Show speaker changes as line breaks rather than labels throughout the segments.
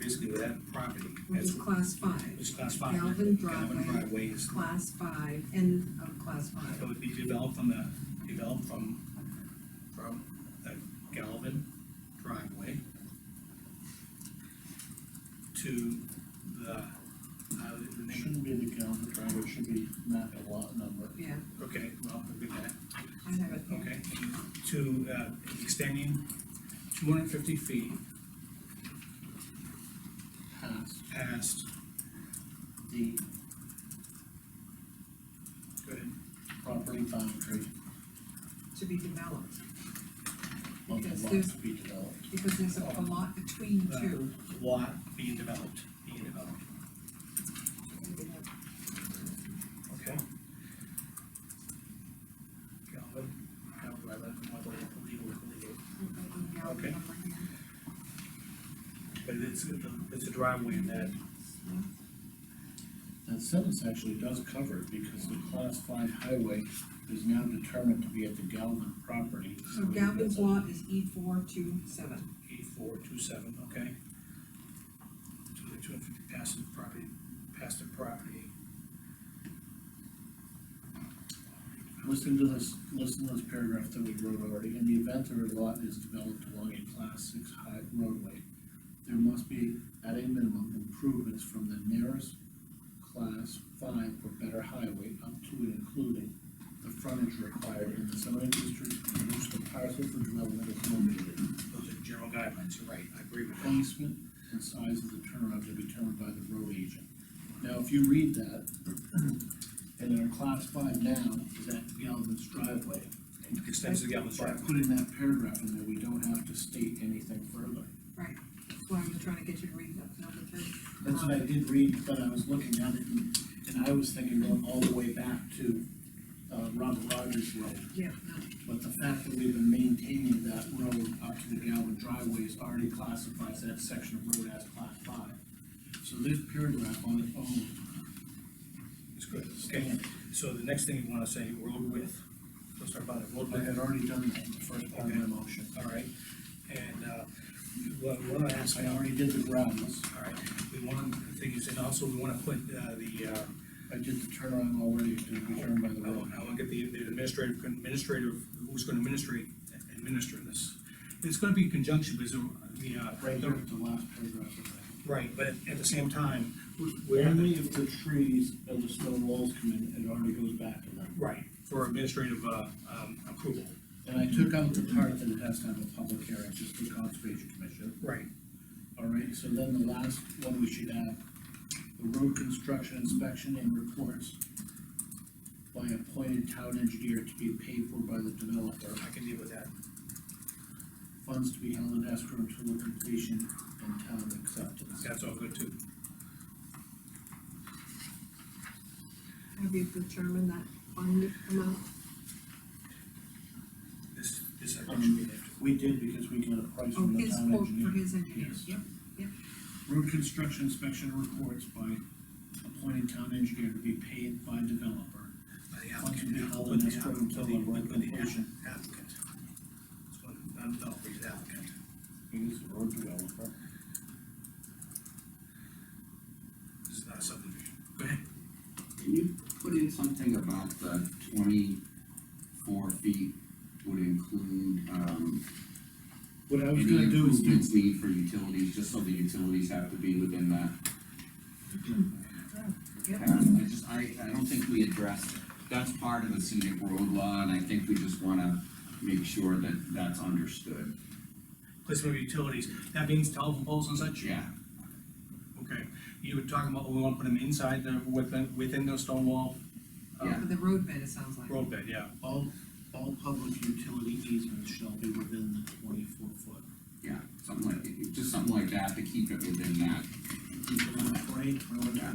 basically with that property,
which
that's
is class five,
It's class five. Galvin
Galvin Broadway,
Broadway is,
class five, end of class five.
so it'd be developed on the, developed from, from the Galvin driveway to the, uh, the
It
name,
shouldn't be the calendar driver, it should be map and lot number.
Yeah,
okay, well, we'll get that,
I have it here.
okay. To, uh, extending two hundred and fifty feet
Past
past,
the
go ahead,
property boundary
to be developed,
of
Because
the lot
there's-
to be developed.
because there's a a lot between two.
the lot being developed, being developed, okay? Galvin, Galvin, rather, what the legal, legal Okay. But it's, it's a driveway in that,
That sentence actually does cover it, because the class five highway is now determined to be at the Galvin property.
So Galvin's lot is E four two seven.
eight four two seven, okay? Two hundred and fifty past the property, past the property.
Listen to this, listen to this paragraph that we wrote already, in the event that a lot is developed along a class six high roadway, there must be, at a minimum, improvements from the nearest class five or better highway up to and including the frontage required in the zoning district in which the parcel for development is located.
Those are general guidelines, you're right, I agree with that.
Placement and size of the turnaround are determined by the road agent. Now, if you read that, and in a class five now is at Galvin's driveway,
It Extends to Galvin's
by
driveway.
putting that paragraph in there, we don't have to state anything further.
Right, that's why I'm trying to get you to read that number three.
That's what I did read, but I was looking at it, and, and I was thinking going all the way back to, uh, Robert Rogers Road.
Yeah, no,
But the fact that we've been maintaining that road up to the Galvin driveway is already classifies that section of road as class five. So this paragraph on its own
It's good, okay? So the next thing you wanna say, road width, let's talk about it, road
I
width,
had already done that in the first part of my motion.
all right? And, uh, what, what I asked,
I already did the grounds,
all right, we want, the thing is, and also we wanna put, uh, the, uh,
I did the turnaround already, to be turned by the
I want,
road.
I want to get the, the administrative, administrative, who's gonna administrate, administer this. It's gonna be in conjunction with the, the, uh,
Right there at the last paragraph of that.
right, but at the same time, where,
Only if the trees and the stone walls come in, it already goes back to them.
right, for administrative, uh, um, approval.
And I took out the part that it has to have a public hearing, just the conservation commission.
Right.
All right, so then the last one we should add, the road construction inspection and reports by appointed town engineer to be paid for by the developer.
I can deal with that.
funds to be held in escrow until the completion and town acceptance.
That's all good too.
have you determined that fund amount?
This, this I think should be there. too.
We did because we got a price
Oh,
from the
his
town
quote for
engineer.
his engineer,
Yes.
yep,
Road construction inspection reports by appointed town engineer to be paid by developer.
By the
Funds to be
applicant,
held
by
in
the
escrow
applicant, by
until
the
the road completion.
applicant. That's what I'm, I'll read the applicant.
He's the road developer.
This is not a subdivision. Go ahead.
Can you put in something about the twenty-four feet would include, um,
What I was
any
gonna do is do,
improvements needed for utilities, just so the utilities have to be within that?
yep.
Um, I just, I, I don't think we addressed, that's part of the scenic road law, and I think we just wanna make sure that that's understood.
Placement of utilities, that means telephone poles and such?
Yeah,
Okay, you were talking about, we wanna put them inside the, within, within the stone wall
yeah,
For the road bed, it sounds like.
road bed, yeah.
all, all public utility easements shall be within the twenty-four foot.
yeah, something like, just something like that to keep it within that.
Right, road,
Yeah.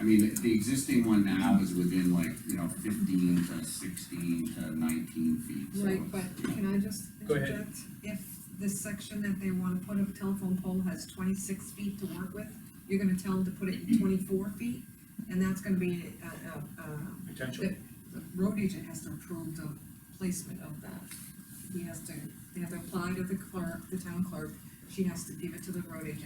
I mean, the- the existing one now is within like, you know, fifteen to sixteen to nineteen feet, so.
Right, but can I just
Go ahead.
interject? If this section that they wanna put a telephone pole has twenty-six feet to work with, you're gonna tell them to put it in twenty-four feet? And that's gonna be, uh, uh, uh,
Potential.
the, the road agent has to approve the placement of that. He has to, they have to apply to the clerk, the town clerk, she has to give it to the road agent,